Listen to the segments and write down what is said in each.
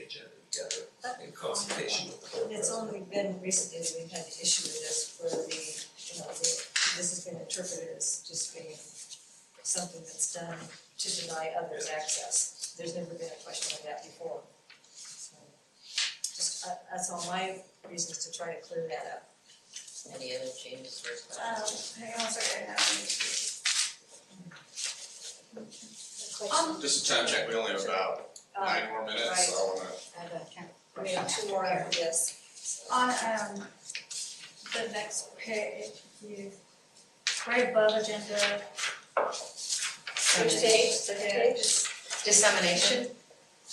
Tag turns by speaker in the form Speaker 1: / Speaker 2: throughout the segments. Speaker 1: together in consultation with the board
Speaker 2: And it's
Speaker 1: president.
Speaker 2: only been recently that we've had the issue with this where the, you know, the, this has been interpreted as just being something that's done to deny others access. There's never been a question like that before. So, Just, uh, that's all my reasons to try to clear that up.
Speaker 3: Any other changes or
Speaker 4: Um,
Speaker 3: questions?
Speaker 4: hang on a second, I have
Speaker 2: Um.
Speaker 5: Just a time check, we only have about
Speaker 2: Uh,
Speaker 5: nine more minutes, so I wanna,
Speaker 3: I have a
Speaker 2: we have two more after this, so.
Speaker 4: on um the next page, you, right above agenda,
Speaker 2: Which page, second page?
Speaker 3: Dissemination,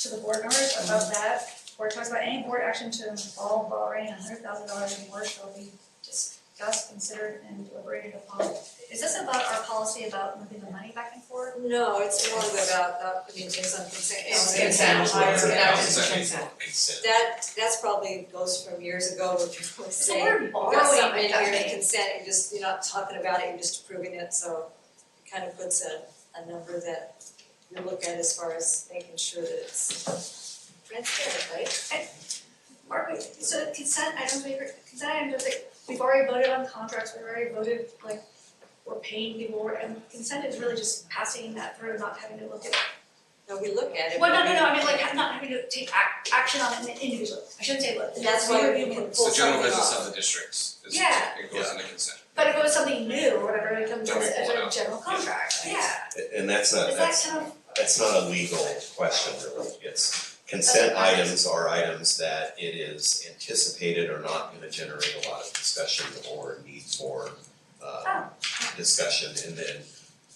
Speaker 4: to the board members, above that, where it talks about any board action to involve borrowing a hundred thousand dollars or more shall be discussed, considered, and deliberated upon. Is this about our policy about moving the money back and forth?
Speaker 2: No, it's more about uh, not putting things on consent.
Speaker 3: It's
Speaker 2: calendar.
Speaker 3: consent.
Speaker 2: I-
Speaker 3: It's
Speaker 5: consent.
Speaker 2: I-
Speaker 5: consent.
Speaker 1: Consent.
Speaker 2: That, that's probably goes from years ago where people were
Speaker 4: So
Speaker 2: saying,
Speaker 4: we're
Speaker 2: you got
Speaker 4: borrowing
Speaker 2: something in here to
Speaker 4: money.
Speaker 2: consent, you're just, you're not talking about it, you're just approving it, so it kind of puts a, a number that you look at as far as making sure that it's transparent, right?
Speaker 4: Are we, so consent items, we, consent items, like, we've already voted on contracts, we've already voted, like, we're paying people, we're- and consent is really just passing that through, not having to look at
Speaker 2: No, we look at it.
Speaker 4: Well, no,
Speaker 2: but
Speaker 4: no,
Speaker 2: we-
Speaker 4: no, I mean, like, ha- not having to take ac- action on it individually, I shouldn't say, look,
Speaker 2: That's why we
Speaker 4: review
Speaker 2: can
Speaker 4: it.
Speaker 2: pull
Speaker 5: it's the general
Speaker 2: something
Speaker 5: business
Speaker 2: off.
Speaker 5: of the districts, is
Speaker 4: Yeah.
Speaker 5: it goes into consent.
Speaker 4: But if it was something new or whatever, it comes
Speaker 5: Then we
Speaker 4: as as
Speaker 5: pull it
Speaker 4: a
Speaker 5: out.
Speaker 4: general contract, yeah,
Speaker 6: And that's not,
Speaker 4: is that
Speaker 6: that's,
Speaker 4: kind of,
Speaker 6: that's not a legal question really, it's consent
Speaker 4: Okay.
Speaker 6: items are items that it is anticipated are not gonna generate a lot of discussion or need for uh
Speaker 4: Oh.
Speaker 6: discussion and then,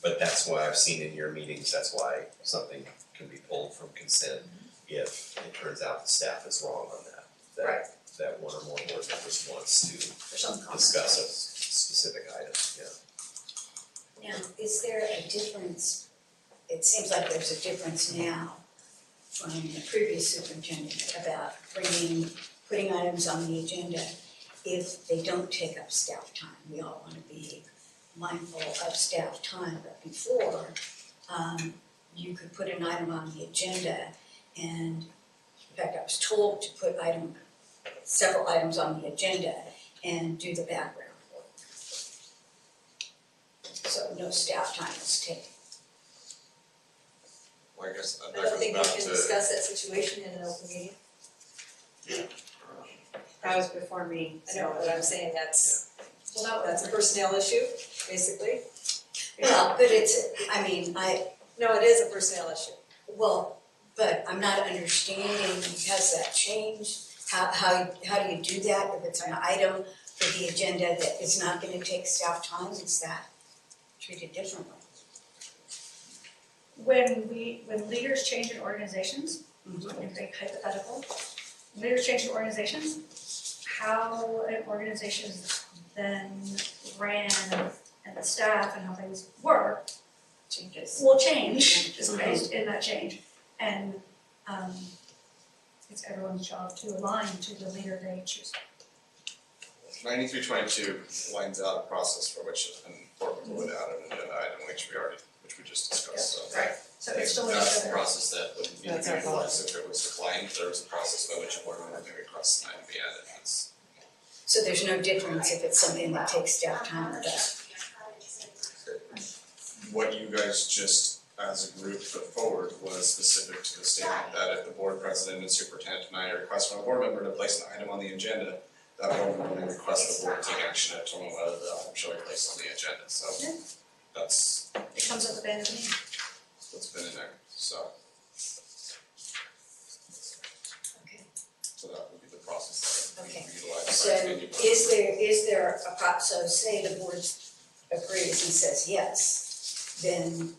Speaker 6: but that's why I've seen in your meetings, that's why something can be pulled from consent if it turns out the staff is wrong on that. That
Speaker 4: Mm-hmm. Right.
Speaker 6: that one or more board members wants to
Speaker 4: for some comment.
Speaker 6: discuss a s- specific item, yeah.
Speaker 7: Now, is there a difference, it seems like there's a difference now from the previous superintendent about uh, bringing, putting items on the agenda if they don't take up staff time. We all want to be mindful of staff time, but before, um, you could put an item on the agenda and, in fact, I was told to put item, several items on the agenda and do the background work. So no staff time is taken.
Speaker 5: Well, I guess that
Speaker 2: I don't
Speaker 5: goes
Speaker 2: think we
Speaker 5: back
Speaker 2: can
Speaker 5: to,
Speaker 2: discuss that situation in an open meeting,
Speaker 3: that was before me,
Speaker 2: I know, but I'm saying that's,
Speaker 4: Well, that
Speaker 2: that's
Speaker 4: was,
Speaker 2: a personnel issue, basically.
Speaker 7: Well, but it's, I mean, I,
Speaker 2: No, it is a personnel issue.
Speaker 7: well, but I'm not understanding, has that changed? How, how, how do you do that if it's an item for the agenda that is not gonna take staff time, is that treated differently?
Speaker 4: when we, when leaders change in organizations,
Speaker 7: Mhm.
Speaker 4: if they hypothetical, leaders change in organizations, how an organization is then ran and the staff and how things work
Speaker 3: changes.
Speaker 4: will change, is based in that change. And um it's everyone's job to align to the leader they choose.
Speaker 5: ninety-three twenty-two lines out a process for which an board member would add an agenda item, which we already, which we just discussed, so.
Speaker 4: Right. So it's still in
Speaker 5: That's the
Speaker 4: the
Speaker 5: process that would need
Speaker 3: That's
Speaker 5: to
Speaker 3: our
Speaker 5: be utilized if it was declined, there was a process by which a board member could request an item be added, that's.
Speaker 7: So there's no difference if it's something that takes staff time or doesn't?
Speaker 5: What you guys just as a group put forward was specific to the statement that if the board president and superintendent deny a request from a board member to place an item on the agenda, that board member may request the board take action to determine whether the item shall be placed on the agenda, so that's
Speaker 4: it comes up at the end of the meeting.
Speaker 5: what's been in there, so.
Speaker 7: Okay.
Speaker 5: So that would be the process that we
Speaker 7: Okay.
Speaker 5: utilize.
Speaker 7: So is there, is there a pro, so say the board agrees and says yes, then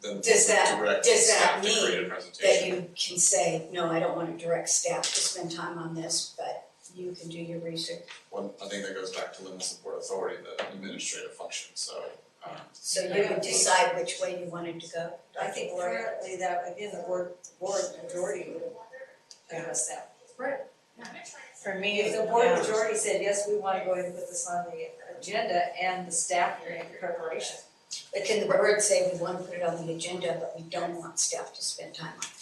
Speaker 5: Then
Speaker 7: does that-
Speaker 5: direct
Speaker 7: does that
Speaker 5: staff to
Speaker 7: mean
Speaker 5: create a presentation.
Speaker 7: that you can say, no, I don't wanna direct staff to spend time on this, but you can do your research.
Speaker 5: One, I think that goes back to limited support authority, the administrative function, so, um,
Speaker 7: So you can decide which way you wanted to go.
Speaker 2: I think currently that, again, the board, board majority would address that.
Speaker 3: For me,
Speaker 2: If the board
Speaker 3: yeah,
Speaker 2: majority said, yes, we wanna go ahead and put this on the agenda and the staff are in preparation.
Speaker 7: But can the board say, we wanna put it on the agenda, but we don't want staff to spend time on it?